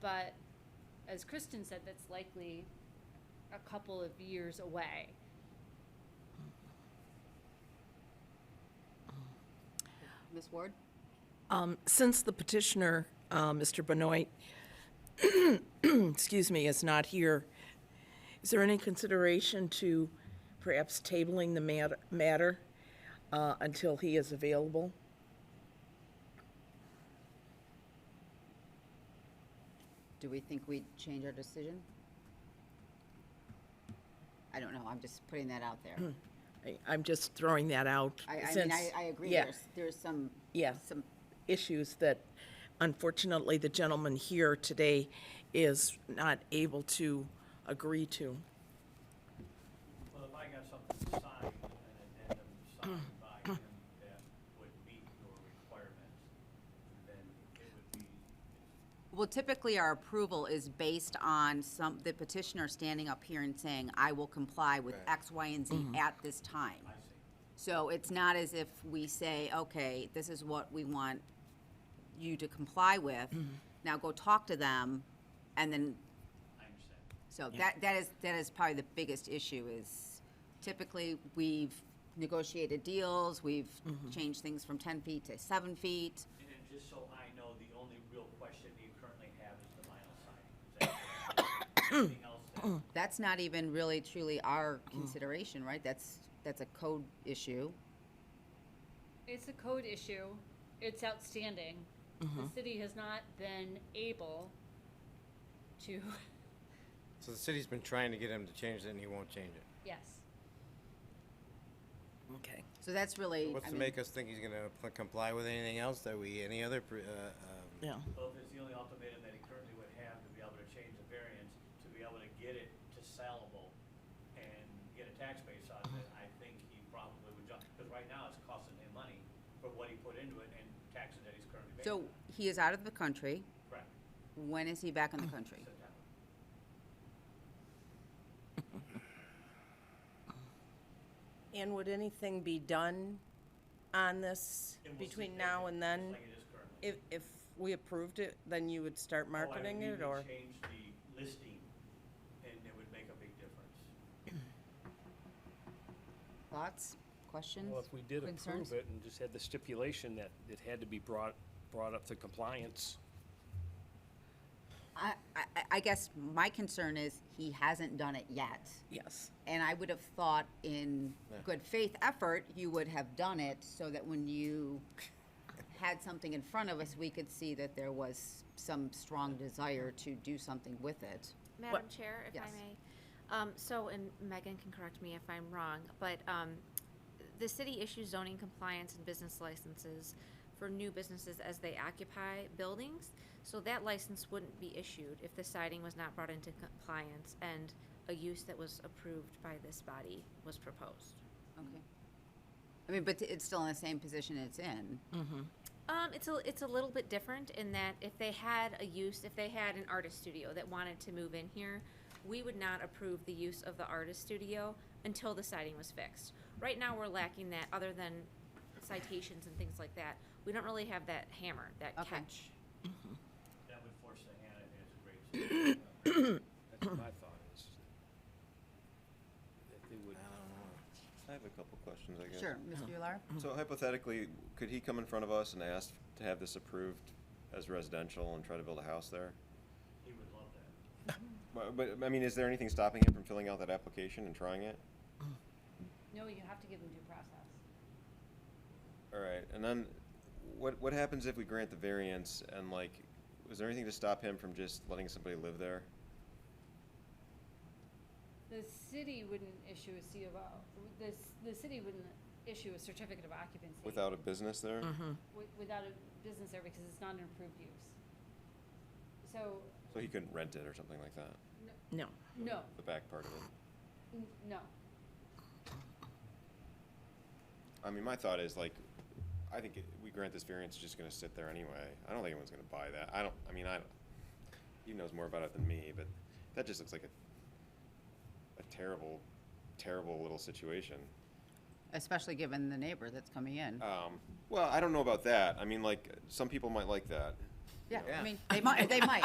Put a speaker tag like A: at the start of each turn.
A: but as Kristen said, that's likely a couple of years away.
B: Ms. Ward?
C: Um, Since the petitioner, uh, Mr. Benoit, excuse me, is not here, is there any consideration to perhaps tabling the mat- matter uh, until he is available?
B: Do we think we'd change our decision? I don't know, I'm just putting that out there.
C: I- I'm just throwing that out.
B: I, I mean,
C: since-
B: I, I agree,
C: yeah,
B: there's, there's some,
C: Yeah.
B: some,
C: Issues that unfortunately the gentleman here today is not able to agree to.
D: Well, if I got something signed, an addendum signed by him that would meet your requirements, then it would be,
B: well, typically our approval is based on some, the petitioner standing up here and saying, I will comply with X, Y, and Z at this time. So it's not as if we say, okay, this is what we want you to comply with, now go talk to them, and then
D: I understand.
B: So that, that is, that is probably the biggest issue is typically we've negotiated deals, we've changed things from ten feet to seven feet.
D: And then just so I know, the only real question you currently have is the vinyl siding. Is that correct? Anything else that,
B: That's not even really truly our consideration, right? That's, that's a code issue.
A: It's a code issue. It's outstanding. The city has not been able to,
E: So the city's been trying to get him to change it and he won't change it.
A: yes.
C: Okay.
B: So that's really,
E: What's
B: I
E: to
B: mean,
E: make us think he's gonna pl- comply with anything else that we, any other, pr- uh, um,
C: Yeah.
D: well, if it's the only ultimatum that he currently would have to be able to change the variance, to be able to get it to sellable and get a tax base out of it, I think he probably would jump, because right now it's costing him money for what he put into it and taxes that he's currently paying.
B: so he is out of the country.
D: Correct,
B: When is he back in the country?
D: September.
F: And would anything be done on this
D: And we'll see
F: between
D: if
F: now
D: it-
F: and
D: just
F: then?
D: like it is currently.
F: If, if we approved it, then you would start
D: Oh, I would
F: marketing
D: need
F: it,
D: to
F: or?
D: Change the listing, and it would make a big difference.
B: Thoughts, questions?
G: Well, if we did
B: concerns?
G: approve it and just had the stipulation that it had to be brought, brought up to compliance,
B: I, I, I guess my concern is he hasn't done it yet.
C: Yes.
B: And I would have thought in good faith effort, you would have done it so that when you had something in front of us, we could see that there was some strong desire to do something with it.
H: Madam Chair, if I
B: Yes.
H: may. Um, so, and Megan can correct me if I'm wrong, but, um, the city issues zoning compliance and business licenses for new businesses as they occupy buildings. So that license wouldn't be issued if the siding was not brought into compliance and a use that was approved by this body was proposed.
B: Okay. I mean, but it's still in the same position it's in.
H: Um, it's a it's a little bit different in that if they had a use, if they had an artist studio that wanted to move in here, we would not approve the use of the artist studio until the siding was fixed. Right now, we're lacking that. Other than citations and things like that, we don't really have that hammer, that
B: Okay.
H: catch.
D: That would force the hand, I think it's a great solution.
G: that's what my thought is. That they would,
I: I have a couple questions, I guess.
B: Sure, Mr. Ular?
I: So hypothetically, could he come in front of us and ask to have this approved as residential and try to build a house there?
D: He would love that.
I: But, but, I mean, is there anything stopping him from filling out that application and trying it?
A: No, you have to give them due process.
I: All right, and then what, what happens if we grant the variance and like, was there anything to stop him from just letting somebody live there?
A: The city wouldn't issue a C of O, the, c- the city wouldn't issue a certificate of occupancy.
I: Without a business there?
F: Mm.
C: Mm-hmm.
A: wi- Without a business there because it's not an approved use. So,
I: So he couldn't rent it or something like that,
C: No.
A: no,
I: the back part of it?
A: n- no.
I: I mean, my thought is like, I think it- we grant this variance, it's just gonna sit there anyway. I don't think anyone's gonna buy that. I don't, I mean, I, don't- he knows more about it than me, but that just looks like a, a terrible, terrible little situation.
B: Especially given the neighbor that's coming in.
I: Um, well, I don't know about that. I mean, like, some people might like that.
B: Yeah, I
E: yeah.
B: mean, they might, they might.